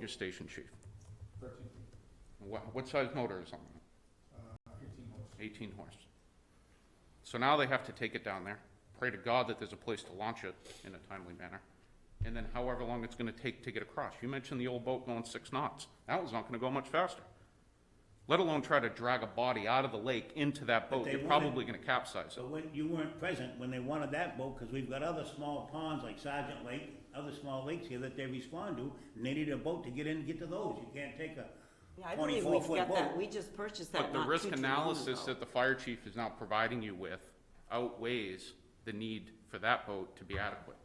your station chief? Thirteen, What, what size motor is on it? uh, fifteen horse. Eighteen horse. So now they have to take it down there, pray to God that there's a place to launch it in a timely manner. And then however long it's gonna take to get across. You mentioned the old boat going six knots. That was not gonna go much faster. Let alone try to drag a body out of the lake into that boat. they You're wanted- probably gonna capsize it. So when, you weren't present when they wanted that boat, because we've got other small ponds like Sergeant Lake, other small lakes here that they respond to, and they needed a boat to get in and get to those, you can't take a Yeah, I believe twenty-four we've foot got that, boat. we just purchased that But the not too, risk too long analysis ago. that the fire chief is now providing you with outweighs the need for that boat to be adequate.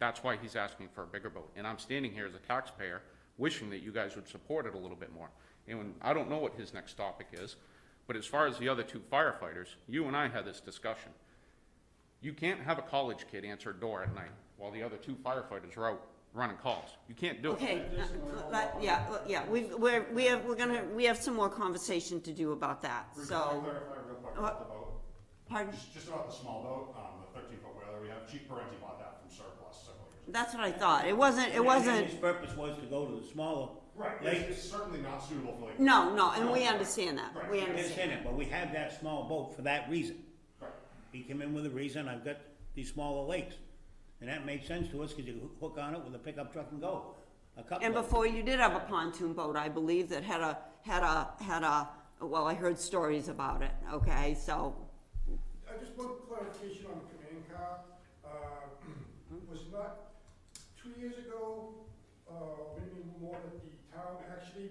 That's why he's asking for a bigger boat. And I'm standing here as a taxpayer wishing that you guys would support it a little bit more. And when- I don't know what his next topic is, but as far as the other two firefighters, you and I had this discussion. You can't have a college kid answer a door at night while the other two firefighters are out running calls. You can't do it. Okay, uh, but, yeah, well, yeah, we, we're, we have, we're gonna, we have some more conversation to do about that, Bruce, can I so, clarify real quick Uh, about the boat? pardon? Just, just about the small boat, um, the thirteen foot whaler we have, Chief Parenti bought that from surplus several years ago. That's what I thought, it wasn't, it wasn't, And His purpose was to go to the smaller Right, lake, it's, it's certainly not suitable for like. no, no, and we understand that, we I understand. understand it, but we have that small boat for that reason. Right. He came in with a reason, I've got these smaller lakes, and that made sense to us, because you hook- hook on it with a pickup truck and go, a couple And of before you did have a pontoon boat, I believe, that had a, had a, had a, well, I heard stories about it, okay, so, I just want clarification on the command car. Uh, Was not, two years ago, uh, maybe more, that the town actually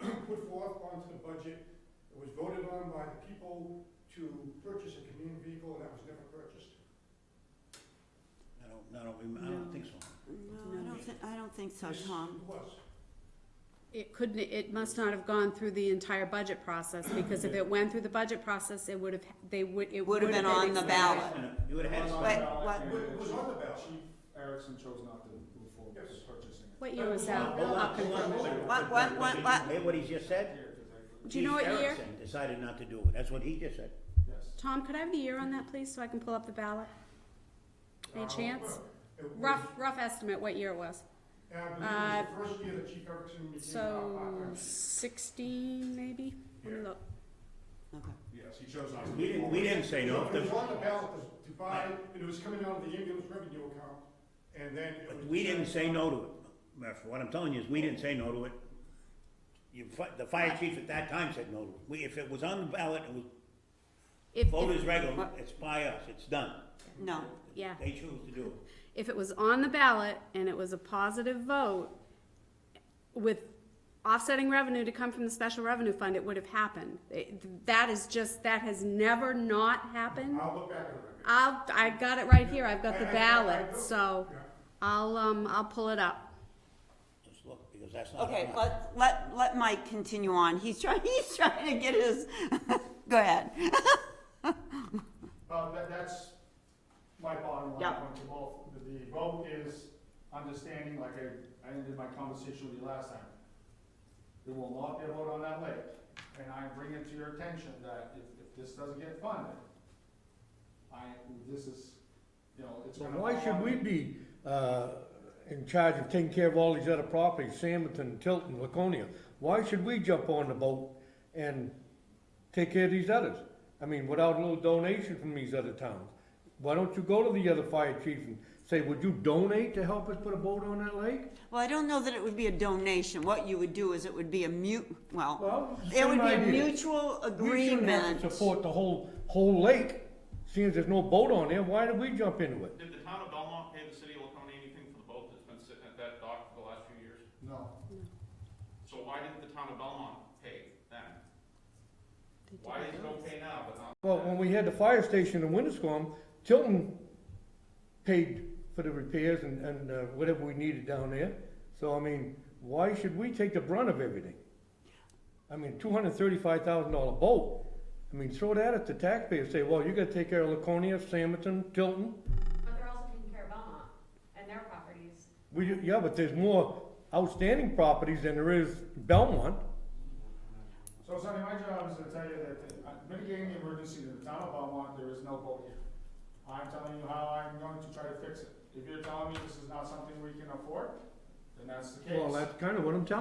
put forth onto the budget, it was voted on by the people to purchase a command vehicle, and that was never purchased. I don't, I don't remember, I don't think so. no, I don't thi- I don't think so, Yes, Tom. It was. It couldn't, it must not have gone through the entire budget process, because if it went through the budget process, it would have, they would, it would have been. on the expanded. ballot. You would have had. Wait, what? It was on the ballot. Chief Erickson chose not to move forward Yes. with purchasing it. What year was uh, that? Hold on, I'll hold on, confirm. hold on. What, what, what, what? Hear what he just said? Here, 'cause I- Do you know Chief what year? Erickson Decided not to do it, that's what he just said. Yes. Tom, could I have the year on that, please, so I can pull up the ballot? Uh, Any chance? It was- Rough, rough estimate, what year it was? and I believe it was the first year that Chief Erickson became. uh, So a part-time. sixteen, maybe? Let me look. Okay. Yes, he chose not to. We didn't, we didn't say no, It was on the ballot to- to buy, and it was coming out of the ambulance revenue account, and then it was. but we didn't say no to it. Murph, what I'm telling you is, we didn't say no to it. You, fi- the fire chief at that time said no to it. We, if it was on the ballot, it was If, if- voters regular, it's by us, it's done. No, yeah, They chose to do it. if it was on the ballot and it was a positive vote with offsetting revenue to come from the special revenue fund, it would have happened. It- That is just, that has never not happened. I'll look back at it. I'll, I got it right here, I've got the I- I- I- I ballot, know. so Yeah. I'll, um, I'll pull it up. Just look, because that's not. okay, on. let, let, let Mike continue on, he's trying, he's trying to get his, go ahead. Uh, that, that's my bottom line Yeah. point to both. The- The vote is understanding, like I, I ended my conversation with you last time. There will not be a vote on that lake, and I bring it to your attention that if, if this doesn't get funded, I, this is, you know, it's So gonna. why fall should on- we be, uh, in charge of taking care of all these other properties, Samerton, Tilton, Laconia? Why should we jump on the boat and take care of these others? I mean, without a little donation from these other towns? Why don't you go to the other fire chief and say, would you donate to help us put a boat on that lake? Well, I don't know that it would be a donation, what you would do is it would be a mute, well, Well, it would same be a idea. mutual We shouldn't have agreement. to support the whole, whole lake, seeing as there's no boat on there, why did we jump into it? Did the town of Belmont pay the city of Laconia anything for the boat that's been sitting at that dock for the last few years? No. So why didn't the town of Belmont pay then? Why is it okay now, but not? Well, when we had the fire station in Windscombe, Tilton paid for the repairs and, and uh, whatever we needed down there. So, I mean, why should we take the brunt of everything? I mean, two hundred and thirty-five thousand dollar boat. I mean, throw that at the taxpayers, say, well, you gotta take care of Laconia, Samerton, Tilton. But they're also taking care of Belmont and their properties. We, yeah, but there's more outstanding properties than there is Belmont. So Sonny, my job is to tell you that uh, mitigating the emergency to the town of Belmont, there is no boat here. I'm telling you how I'm going to try to fix it. If you're telling me this is not something we can afford, then that's the case. Well, that's kinda what I'm telling